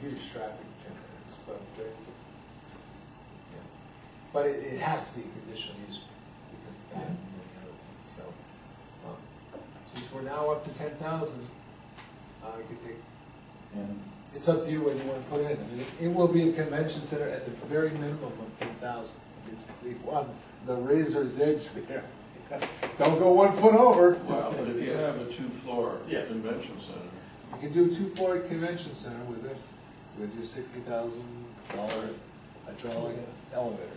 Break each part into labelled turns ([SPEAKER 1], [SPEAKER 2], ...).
[SPEAKER 1] huge traffic generators, but they're, yeah. But it, it has to be a conditional use because of that and many other things, so. um, Since we're now up to ten thousand, uh, you could take,
[SPEAKER 2] And
[SPEAKER 1] it's up to you when you wanna put it in. I mean, It will be a convention center at the very minimum of ten thousand. It's the one, the razor's edge there. Don't go one foot over.
[SPEAKER 2] Well, but if you have a two-floor
[SPEAKER 3] Yeah.
[SPEAKER 2] convention center,
[SPEAKER 1] You can do two floor convention center with it, with your sixty thousand dollar hydraulic elevator.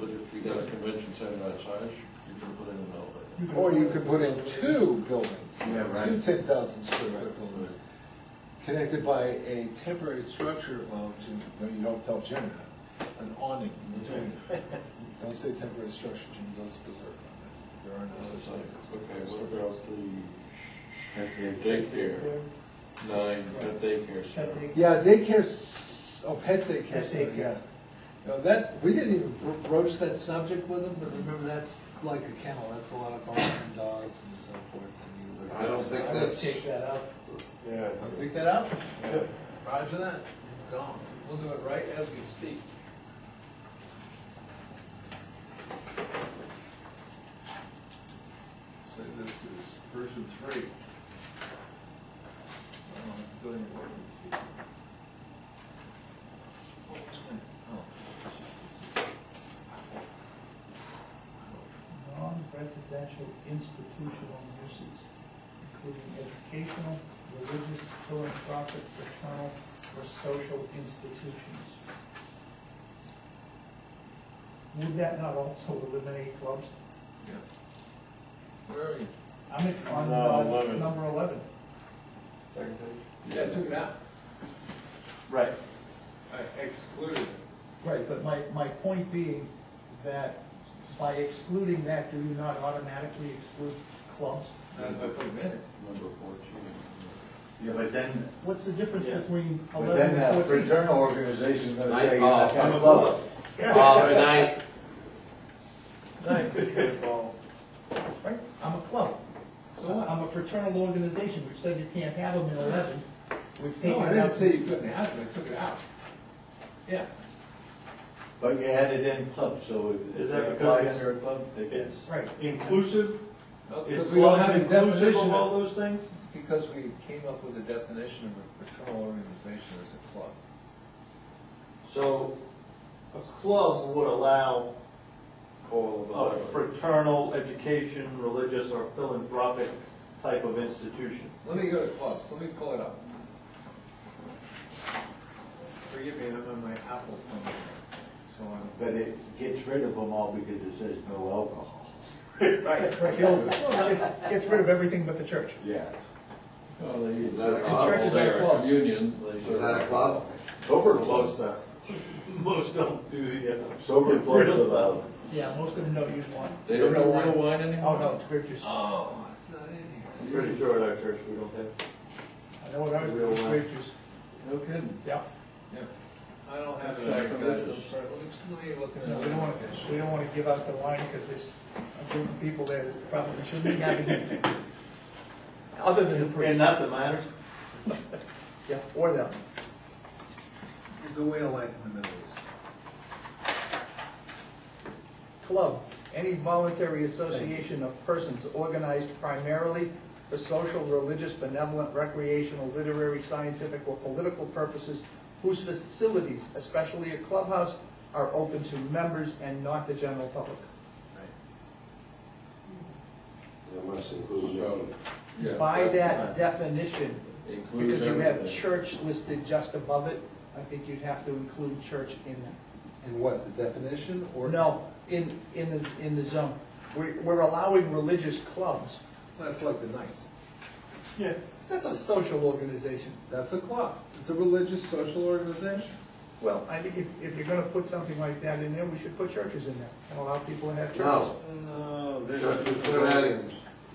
[SPEAKER 2] but if you got a convention center that size, you can put in an elevator.
[SPEAKER 1] Or you could put in two buildings,
[SPEAKER 2] Yeah, right.
[SPEAKER 1] two ten thousand square foot buildings, connected by a temporary structure of, to- no, you don't tell Jim that, an awning in between. Don't say temporary structure, Jim goes berserk on that. There are no
[SPEAKER 2] It's
[SPEAKER 1] such
[SPEAKER 2] like,
[SPEAKER 1] things as
[SPEAKER 2] Okay,
[SPEAKER 1] temporary
[SPEAKER 2] what
[SPEAKER 1] structures.
[SPEAKER 2] about the daycare, nine, that daycare center?
[SPEAKER 1] Yeah, daycare, s- oh, pet daycare
[SPEAKER 3] Pet
[SPEAKER 1] center,
[SPEAKER 3] daycare.
[SPEAKER 1] yeah. No, that, we didn't even bro- broach that subject with them, but remember, that's like a kennel, that's a lot of barking dogs and so forth, and you would.
[SPEAKER 4] I don't think
[SPEAKER 3] I would
[SPEAKER 4] that's-
[SPEAKER 3] take that out.
[SPEAKER 4] Yeah.
[SPEAKER 1] I'll take that out. Roger that, it's gone. We'll do it right as we speak. So this is version three. So I don't have to do any work. Oh, it's going- oh, jeez, this is-
[SPEAKER 3] Non-residential institutional uses, including educational, religious, philanthropic, fraternal, or social institutions. Would that not also eliminate clubs?
[SPEAKER 1] Yeah. Where are you?
[SPEAKER 3] I'm at, on,
[SPEAKER 4] No,
[SPEAKER 3] uh,
[SPEAKER 4] 11.
[SPEAKER 3] number eleven.
[SPEAKER 1] Yeah, I took it out.
[SPEAKER 4] Right.
[SPEAKER 1] I excluded it.
[SPEAKER 3] Right, but my, my point being that by excluding that, do you not automatically exclude clubs?
[SPEAKER 1] Not if I put it in it.
[SPEAKER 2] Number fourteen.
[SPEAKER 5] Yeah, but then,
[SPEAKER 3] What's the difference
[SPEAKER 4] Yeah.
[SPEAKER 3] between
[SPEAKER 5] but
[SPEAKER 3] eleven
[SPEAKER 5] then uh,
[SPEAKER 3] and
[SPEAKER 5] that
[SPEAKER 3] fourteen?
[SPEAKER 5] fraternal organization's gonna
[SPEAKER 4] Night
[SPEAKER 5] tell you
[SPEAKER 4] ball.
[SPEAKER 5] that kind of club.
[SPEAKER 4] Oh, good night.
[SPEAKER 3] Right, I'm a club.
[SPEAKER 1] So what?
[SPEAKER 3] I'm a fraternal organization, we've said you can't have them in eleven, we've taken
[SPEAKER 1] No,
[SPEAKER 3] it out.
[SPEAKER 1] I didn't say you couldn't have it, I took it out. Yeah.
[SPEAKER 5] But you had it in club, so if
[SPEAKER 4] Is
[SPEAKER 5] if
[SPEAKER 4] that
[SPEAKER 5] they
[SPEAKER 4] because
[SPEAKER 5] apply
[SPEAKER 4] it's-
[SPEAKER 5] under a club, they get.
[SPEAKER 3] Right,
[SPEAKER 4] Inclusive,
[SPEAKER 1] Because
[SPEAKER 4] is
[SPEAKER 1] we don't have
[SPEAKER 4] club
[SPEAKER 1] a
[SPEAKER 4] inclusive
[SPEAKER 1] definition,
[SPEAKER 4] of all
[SPEAKER 1] of-
[SPEAKER 4] those things?
[SPEAKER 1] because we came up with a definition of a fraternal organization as a club.
[SPEAKER 4] So a club would allow
[SPEAKER 2] All
[SPEAKER 4] a
[SPEAKER 2] of them.
[SPEAKER 4] fraternal, education, religious, or philanthropic type of institution.
[SPEAKER 1] Let me go to clubs, let me pull it up. Forgive me, I'm on my Apple phone, so I'm.
[SPEAKER 5] But it gets rid of them all because it says no alcohol.
[SPEAKER 4] Right.
[SPEAKER 3] right, kills, it's, gets rid of everything but the church.
[SPEAKER 5] Yeah.
[SPEAKER 2] Well, they use
[SPEAKER 5] that a
[SPEAKER 2] that
[SPEAKER 5] club?
[SPEAKER 2] churches are clubs. Communion. they
[SPEAKER 5] So is that a
[SPEAKER 2] serve-
[SPEAKER 5] club?
[SPEAKER 4] Over
[SPEAKER 5] Sober club.
[SPEAKER 4] most, uh, most don't do the, uh,
[SPEAKER 5] Sober
[SPEAKER 4] Rid
[SPEAKER 5] clubs
[SPEAKER 4] of
[SPEAKER 5] allowed.
[SPEAKER 3] Yeah, most of them don't use one.
[SPEAKER 2] They don't
[SPEAKER 3] Real
[SPEAKER 2] do
[SPEAKER 3] wine.
[SPEAKER 2] real wine anymore? Uh,
[SPEAKER 3] Oh, no, it's grape juice. I
[SPEAKER 1] Oh, it's not in here.
[SPEAKER 4] I'm pretty sure at our church we don't have.
[SPEAKER 3] know what I
[SPEAKER 4] Real
[SPEAKER 3] was,
[SPEAKER 4] wine.
[SPEAKER 3] grape juice,
[SPEAKER 2] No kidding.
[SPEAKER 3] yeah.
[SPEAKER 1] Yeah. I don't have it,
[SPEAKER 2] That's
[SPEAKER 1] on here, guys,
[SPEAKER 2] sacrilegious.
[SPEAKER 1] I'm sorry, let me, let me look at
[SPEAKER 3] You know, We don't want, to. we don't want to give out the wine because there's a group of people there that probably shouldn't be having it. Other than the
[SPEAKER 4] And
[SPEAKER 3] priest.
[SPEAKER 4] not that matters?
[SPEAKER 3] Yeah, or them.
[SPEAKER 1] There's a way of life in the Middle East.
[SPEAKER 3] Club, any voluntary association of persons organized primarily for social, religious, benevolent, recreational, literary, scientific, or political purposes, whose facilities, especially a clubhouse, are open to members and not the general public.
[SPEAKER 5] Unless includes.
[SPEAKER 2] Yeah.
[SPEAKER 3] By that definition,
[SPEAKER 2] Includes
[SPEAKER 3] because you have
[SPEAKER 2] everything.
[SPEAKER 3] church listed just above it, I think you'd have to include church in that.
[SPEAKER 1] And what, the definition
[SPEAKER 3] Or no, in, in the, in the zone. We're, we're allowing religious clubs.
[SPEAKER 1] That's like the Knights.
[SPEAKER 4] Yeah.
[SPEAKER 3] That's a social organization.
[SPEAKER 1] That's a club. It's a religious, social organization.
[SPEAKER 3] Well, I think if, if you're gonna put something like that in there, we should put churches in there and allow people to have churches.
[SPEAKER 6] No,
[SPEAKER 2] Uh,
[SPEAKER 4] No,
[SPEAKER 6] churches turn out,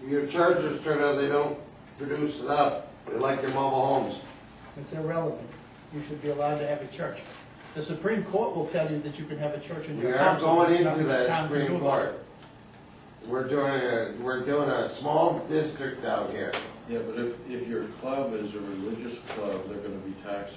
[SPEAKER 6] your churches turn out, they don't produce enough, they're like your mobile homes.
[SPEAKER 3] It's irrelevant. You should be allowed to have a church. The Supreme Court will tell you that you can have a church in
[SPEAKER 6] We
[SPEAKER 3] your
[SPEAKER 6] are
[SPEAKER 3] house. and
[SPEAKER 6] going
[SPEAKER 3] there's nothing
[SPEAKER 6] into
[SPEAKER 3] the
[SPEAKER 6] that
[SPEAKER 3] town can do
[SPEAKER 6] Supreme
[SPEAKER 3] about it.
[SPEAKER 6] Court. We're doing a, we're doing a small district out here.
[SPEAKER 2] Yeah, but if, if your club is a religious club, they're gonna be taxed